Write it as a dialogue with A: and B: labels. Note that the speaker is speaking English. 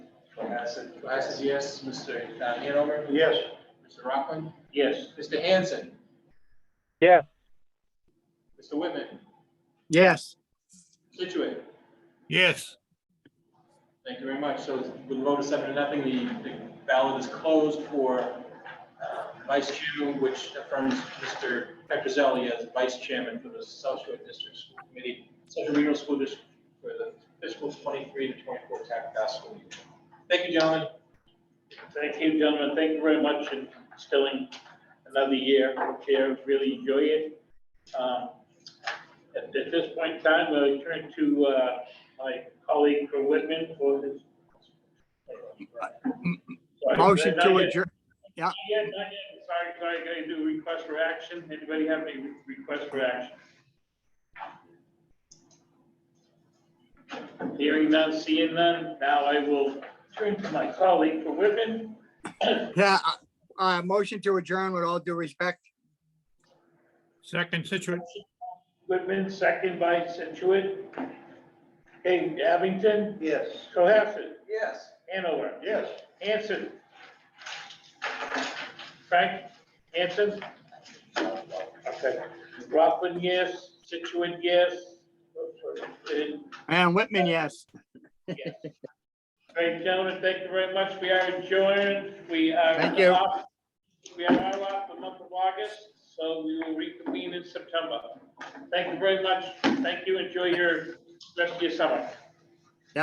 A: Bassett? Bassett, yes. Mr. Hanover?
B: Yes.
A: Mr. Rockland?
B: Yes.
A: Mr. Hanson?
C: Yes.
A: Mr. Whitman?
D: Yes.
A: Situate?
E: yes,
A: Thank you very much. So with a vote of seven to nothing, the the ballot is closed for uh, vice chairman, which affirms Mr. Petrozelli as vice chairman for the South Shore District School Committee, Central Regional School District for the fiscal 23 to 24 tax school year. Thank you, gentlemen.
B: Thank you, gentlemen. Thank you very much for instilling another year here. Really enjoy it. Um, At at this point in time, I'll turn to uh, my colleague for Whitman for his. Sorry,
D: Motion
B: not
D: to
B: yet.
D: adjourn.
B: Not yet, not yet. Sorry, sorry, I do request for action. Anybody have any re- requests for action? Hearing none, seeing none. Now I will turn to my colleague for Whitman.
D: Yeah, uh, uh, motion to adjourn with all due respect.
E: second Situate,
B: Whitman, second by Situit. Okay, Abington,
F: Yes.
B: Cohasset,
A: Yes.
B: Hanover,
F: Yes.
B: Hanson. Frank, Hanson? Okay. Rockland, yes. Situit, yes. And
D: And Whitman, yes.
B: Great, gentlemen, thank you very much. We are adjourned. We are.
D: Thank you.
B: off- We are now off the month of August, so we will reconvene in September. Thank you very much. Thank you. Enjoy your rest of your summer.